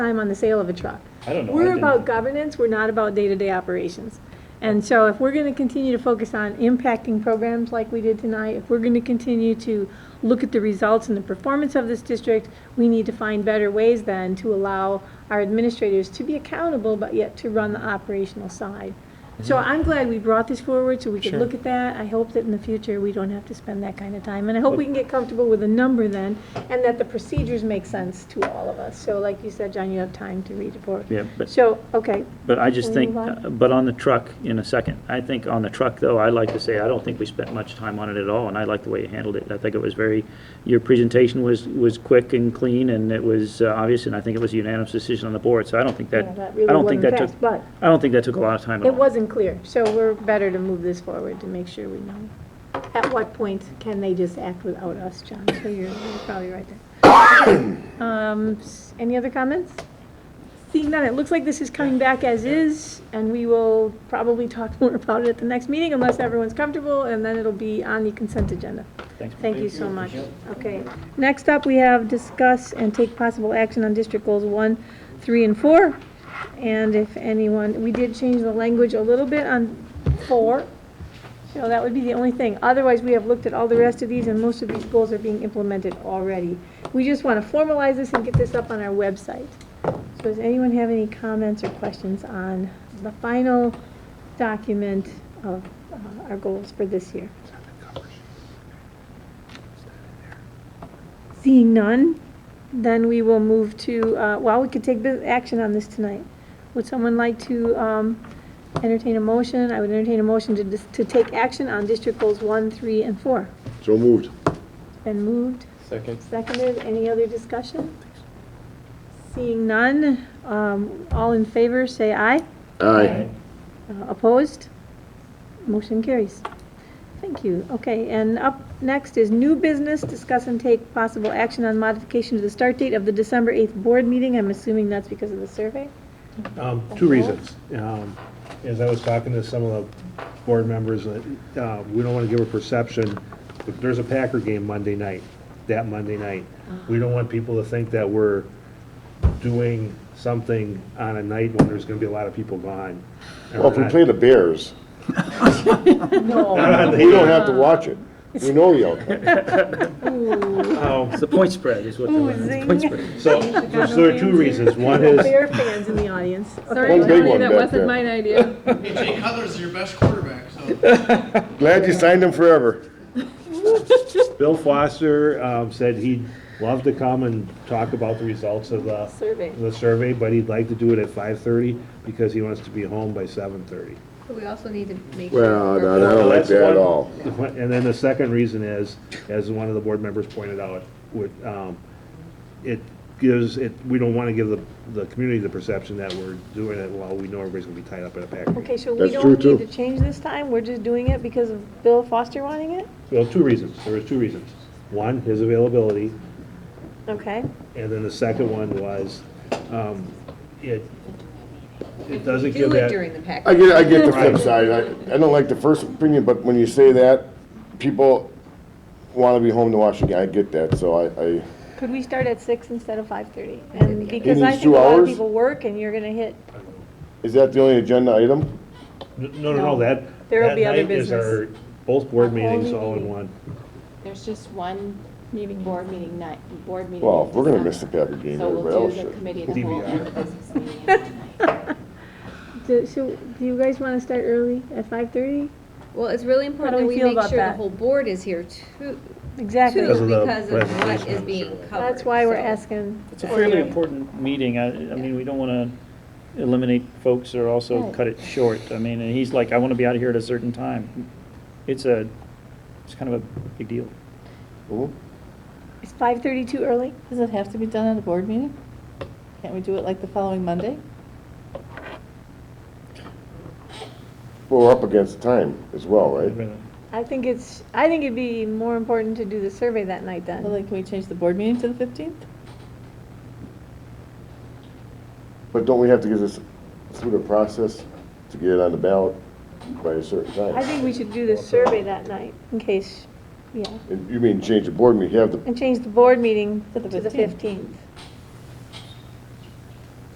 time on the sale of a truck. I don't know. I We're didn't- about governance, we're not about day-to-day operations. And so if we're gonna continue to focus on impacting programs like we did tonight, if we're gonna continue to look at the results and the performance of this district, we need to find better ways then to allow our administrators to be accountable, but yet to run the operational side. So I'm glad we brought this forward so we could Mm-hmm. Sure. look at that. I hope that in the future, we don't have to spend that kind of time. And I hope we can get comfortable with a number then, and that the procedures make sense to all of us. So like you said, John, you have time to read it for. Yeah, but, So, okay, but I just Can we think, uh, move but on the truck, in a second, I think on the truck, though, I'd like to say, I don't think we spent much time on it at all, and I like the way you handled it. I think it was very, your presentation was, was quick and clean, and it was uh, obvious, and I think it was a unanimous decision on the board, so I don't think that, Yeah, that really I don't think wasn't that took, fast, but- I don't think that took a lot of time at it all. wasn't clear. So we're better to move this forward to make sure we know. At what point can they just act without us, John? So you're you're probably right there. Um, s- Any other comments? Seeing none, it looks like this is coming back as is, and we will probably talk more about it at the next meeting unless everyone's comfortable, and then it'll be on the consent agenda. Thanks. Thank you so much. Okay. Next up, we have discuss and take possible action on district goals one, three, and four. And if anyone, we did change the language a little bit on four. So that would be the only thing. Otherwise, we have looked at all the rest of these and most of these goals are being implemented already. We just want to formalize this and get this up on our website. So does anyone have any comments or questions on the final document of uh, our goals for this year? Seeing none, then we will move to, uh, well, we could take bu- action on this tonight. Would someone like to um, entertain a motion? I would entertain a motion to dis- to take action on District Goals 1, 3, and 4. So moved. Been moved, Second. seconded, any other discussion? Seeing none, um, all in favor, say aye. Aye. Uh, Opposed? Motion carries. Thank you. Okay, and up next is new business, discuss and take possible action on modification to the start date of the December 8th board meeting. I'm assuming that's because of the survey? Um, Two reasons. Um, As I was talking to some of the board members, uh, uh, we don't want to give a perception, if there's a Packer game Monday night, that Monday night, we don't want people to think that we're doing something on a night when there's going to be a lot of people gone. Well, if we play the Bears, we don't have to watch it. We know you. Um, It's the point spread is what they Ooh, want, it's point zing. spread. So, so there are two reasons. One is. Bear fans in the audience. One Sorry, big Tony, one that back wasn't there. mine idea. Jay Cutler's your best quarterback, so. Glad you signed him forever. Bill Foster um, said he'd love to come and talk about the results of the. Survey. The survey, but he'd like to do it at five-thirty because he wants to be home by seven-thirty. We also need to make sure. Well, no, we're- I don't like that at all. And then the second reason is, as one of the board members pointed out, would, um, it gives, it, we don't want to give the, the community the perception that we're doing it while we know everybody's gonna be tied up in a pack. Okay, so we That's true, don't need too. to change this time? We're just doing it because of Bill Foster wanting it? Well, two reasons, there was two reasons. One, his availability, Okay. And then the second one was, um, it, it doesn't give Do it that. during the pack. I get, I get the flip Right. side. I, I don't like the first opinion, but when you say that, people want to be home to watch the game. I get that, so I, I, Could we start at 6 instead of 5:30? And because He I think needs a two lot of hours? people work and you're going to hit is that the only agenda item? No, no, no, that, There will that be other night is our, both board meetings all in one. There's just one meeting, board meeting night, board meeting. Well, in we're gonna December. miss the Packer game, So everybody we'll else do the should. committee of the whole and the business meeting. Do- So, do you guys want to start early at five thirty? Well, it's really How do important we that we feel make about sure the that? whole board is here too, Exactly. too, Because of the because of what presentation is and being survey. covered. That's why we're so. asking. It's a fairly important meeting. I, I mean, we don't want to eliminate folks or also Right. cut it short. I mean, and he's like, I want to be out of here at a certain time. It's a, it's kind of a big deal. Mhm. Is five thirty too early? Does it have to be done at a board meeting? Can't we do it like the following Monday? Well, we're up against time as well, right? I think it's, I think it'd be more important to do the survey that night Uh, Well, then. Like, can we change the board meeting to the fifteenth? But don't we have to get this through the process to get it on the ballot by a certain time? I think we should do the survey that night in case, yeah, And You mean change the board meeting, have the and change the board meeting To the to the 15th. fifteenth.